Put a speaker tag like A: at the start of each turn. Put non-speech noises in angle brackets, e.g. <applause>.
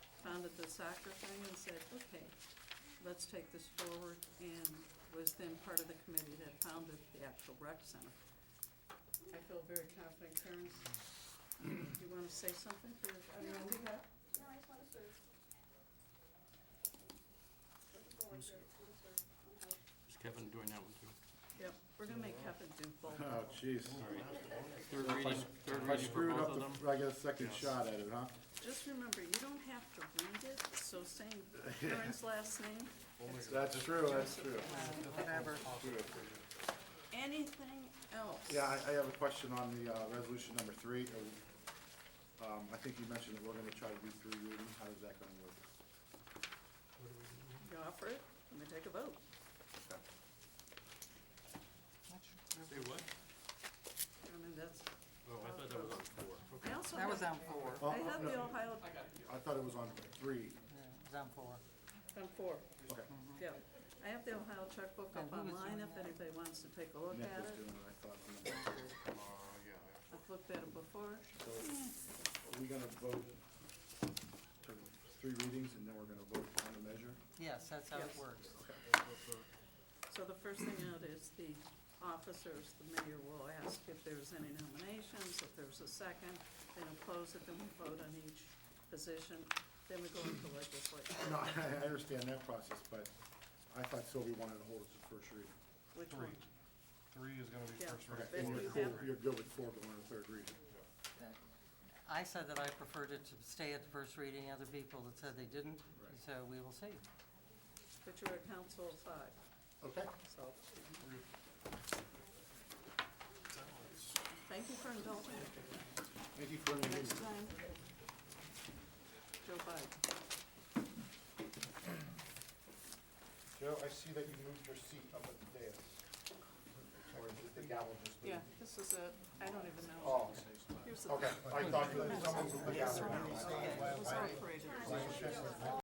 A: soccer thing and said, okay, let's take this forward, and was then part of the committee that founded the actual rec center. I feel very confident, Karen. Do you wanna say something for, I don't know, we have,
B: No, I just wanna serve. Looking forward to it, wanna serve, wanna help.
C: Is Kevin doing that one too?
A: yep, we're gonna make Kevin do both.
D: <laughs> Oh, jeez.
C: Third
D: If I-
C: reading, third
D: if I
C: reading for
D: screwed
C: both of them?
D: up,
C: Oh
D: the- I get a second shot at it, huh?
A: Just remember, you don't have to read it, so saying Karen's last name,
D: That's true, that's true.
A: whatever. Anything else?
D: Yeah, I, I have a question on the, uh, resolution number three. Uh, Um, I think you mentioned that we're gonna try to do three readings. How is that gonna work?
A: You offer it, let me take a vote.
C: Say what?
A: I mean, that's,
C: Oh, I thought that was on four.
A: I also
E: That was
A: have,
E: on four.
D: Oh,
A: I have the
D: no,
A: Ohio,
D: I thought it was on three.
E: Yeah, it was on four.
A: on four,
D: Okay.
A: yeah. I have the Ohio checkbook up
E: And who was
A: online
E: doing
A: if
E: that?
A: anybody wants to take a look
D: Nick
A: at
D: was
A: it.
D: doing it, I thought. on number two.
A: I've looked at it before.
D: So are we gonna vote to three readings and then we're gonna vote on the measure?
E: Yes, that's how it
A: Yes.
E: works.
A: So the first thing out is the officers, the mayor will ask if there's any nominations, if there's a second, then oppose it, then we vote on each position, then we go into legislature,
D: No, I, I understand that process, but I thought Sylvia wanted to hold it to first reading.
A: which one?
F: Three. Three is gonna be
A: Yeah.
F: first
D: Okay,
F: reading.
A: Then
D: and
A: you
D: you're cool,
A: have-
D: you're good with four going to third reading.
E: That- I said that I preferred it to stay at the first reading, other people that said they didn't, so we will see.
A: But you're a council of five,
D: Okay.
A: so. Thank you for indulging me.
D: Thank you for any
A: Next
D: reason.
A: time, Joe Biden.
D: Joe, I see that you moved your seat up at the dais. Or did the gavel just
A: Yeah, this is a, I don't even know.
D: Oh,
A: Here's the,
D: okay,
A: it
D: I thought that someone moved the gavel.
A: was operated.